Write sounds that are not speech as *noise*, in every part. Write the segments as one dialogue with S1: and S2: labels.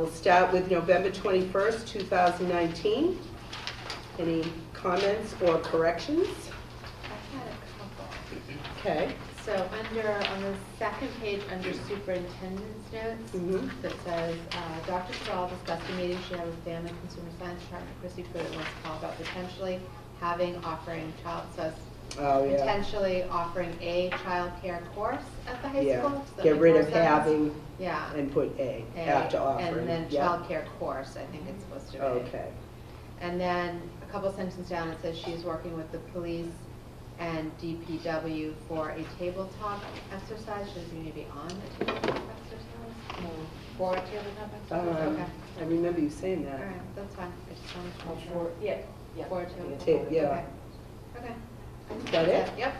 S1: We'll start with November 21st, 2019. Any comments or corrections?
S2: I've had a
S1: Okay.
S2: couple. So under, on the second page, under superintendent's notes,
S1: Mhm.
S2: that says, uh, Dr. Terrell discussed a meeting she had with family and consumer science department, Chrissy Pruitt wants to call about potentially having, offering child, so it's
S1: Oh, yeah.
S2: potentially offering a childcare course at the high
S1: Yeah.
S2: school. Does that
S1: Get
S2: make
S1: rid
S2: more
S1: of
S2: sense?
S1: having
S2: Yeah.
S1: and put A
S2: A,
S1: after offering.
S2: And then
S1: Yeah.
S2: childcare course, I think it's supposed to be.
S1: Okay.
S2: And then a couple sentences down, it says she's working with the police and DPW for a tabletop exercise. Should we maybe on a tabletop exercise? No. For a tabletop exercise,
S1: Um,
S2: okay.
S1: I remember you saying
S2: All
S1: that.
S2: right, that's fine. I just wanted to
S3: Oh,
S2: make
S3: for-
S2: sure.
S3: Yeah, yeah.
S2: For a tabletop.
S1: Ta- yeah.
S2: Okay. Okay.
S1: Is that it?
S2: Yep.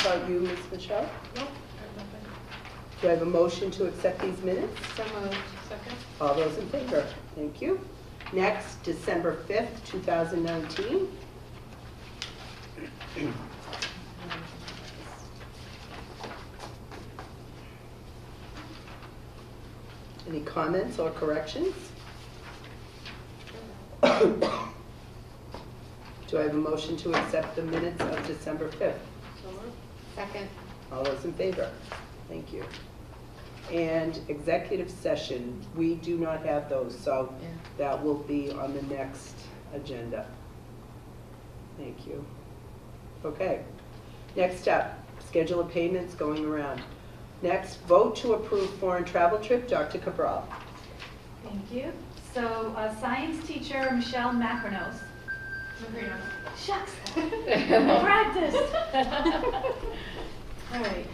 S1: About you, Ms. Michelle?
S2: Nope.
S1: Do I have a motion to accept these minutes?
S2: So moved. Second.
S1: All those in favor? Thank you. Next, December 5th, 2019. Any comments or corrections? Do I have a motion to accept the minutes of December 5th?
S2: Second.
S1: All those in favor? Thank you. And executive session, we do not have those, so
S2: Yeah.
S1: that will be on the next agenda. Thank you. Okay. Next up, schedule of payments going around. Next, vote to approve foreign travel trip, Dr. Cabral.
S4: Thank you. So, uh, science teacher Michelle Macronos. Shucks, I practiced. All right.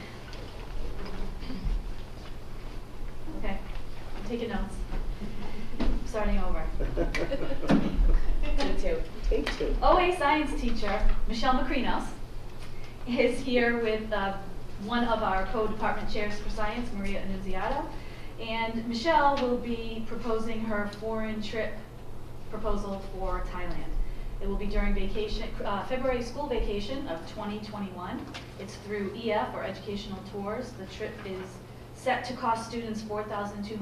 S4: Okay, I'm taking notes. Starting over.
S1: Take two.
S4: OA science teacher Michelle Macrinos is here with uh, one of our co-department chairs for science, Maria Annunziata. And Michelle will be proposing her foreign trip proposal for Thailand. It will be during vacation, uh, February school vacation of 2021. It's through EF or Educational Tours. The trip is set to cost students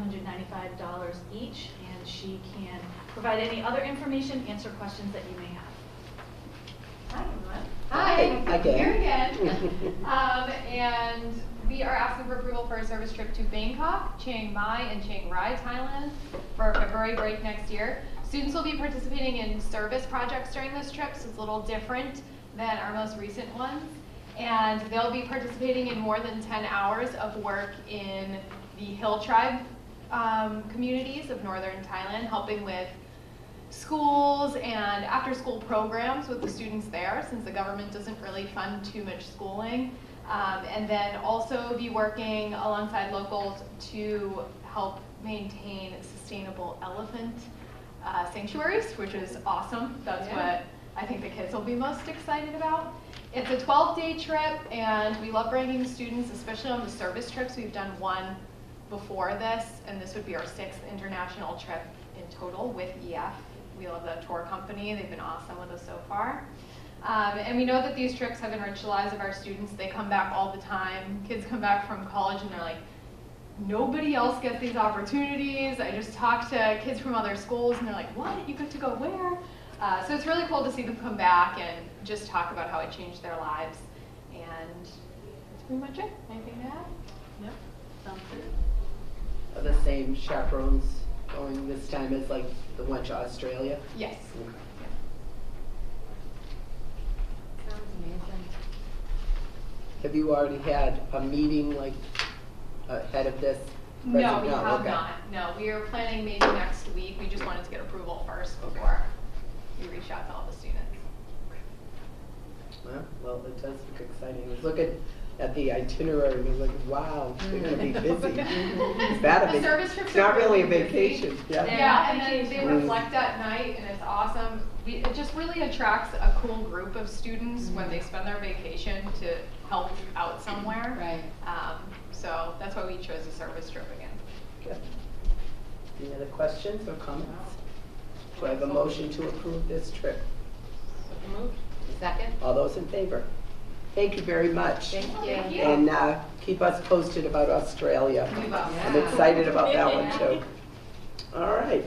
S4: $4,295 each, and she can provide any other information, answer questions that you may have.
S5: Hi, everyone.
S1: Hi. Hi, Gail. *laughs*
S5: Here again. Um, and we are asking for approval for a service trip to Bangkok, Chiang Mai, and Chiang Rai, Thailand for February break next year. Students will be participating in service projects during this trip, so it's a little different than our most recent ones. And they'll be participating in more than ten hours of work in the hill tribe, um, communities of northern Thailand, helping with schools and after-school programs with the students there, since the government doesn't really fund too much schooling. Um, and then also be working alongside locals to help maintain sustainable elephant uh, sanctuaries, which is awesome. That's what I think the kids will be most excited about. It's a 12-day trip, and we love bringing students, especially on the service trips. We've done one before this, and this would be our sixth international trip in total with E EF. We love the tour company, they've been awesome with us so far. Um, and we know that these trips have enriched the lives of our students. They come back all the time. Kids come back from college and they're like, nobody else gets these opportunities. I just talk to kids from other schools and they're like, what? You get to go where? Uh, so it's really cool to see them come back and just talk about how it changed their lives. And that's pretty much it. Anything to add?
S1: Are the same chaperones going this time as like the one to Australia?
S5: Yes.
S2: Sounds amazing.
S1: Have you already had a meeting like ahead of this?
S5: No, we
S1: No,
S5: have
S1: okay.
S5: not. No, we are planning maybe next week. We just wanted to get approval first before we reach out to all the students.
S1: Well, Well, it does look exciting. I was looking at the itinerary and I was like, wow, we're gonna
S5: *laughs*
S1: be busy. Is that a
S5: The
S1: vac-
S5: service
S1: It's
S5: trips
S1: not
S5: are
S1: really a
S5: really busy.
S1: vacation, yeah.
S4: They're
S5: Yeah,
S4: not
S5: and then they
S1: vacations.
S5: reflect at night and it's awesome. We, it just really attracts a cool group of students when they spend their vacation to help out somewhere.
S2: Right.
S5: Um, so that's why we chose a service trip again.
S1: Good. Any other questions or comments? Do I have a motion to approve this trip?
S2: Second.
S1: All those in favor? Thank you very much.
S2: Thank
S5: Oh,
S2: you.
S5: thank you.
S1: And uh, keep us posted about Australia.
S5: We love.
S1: I'm excited about that one too. All right,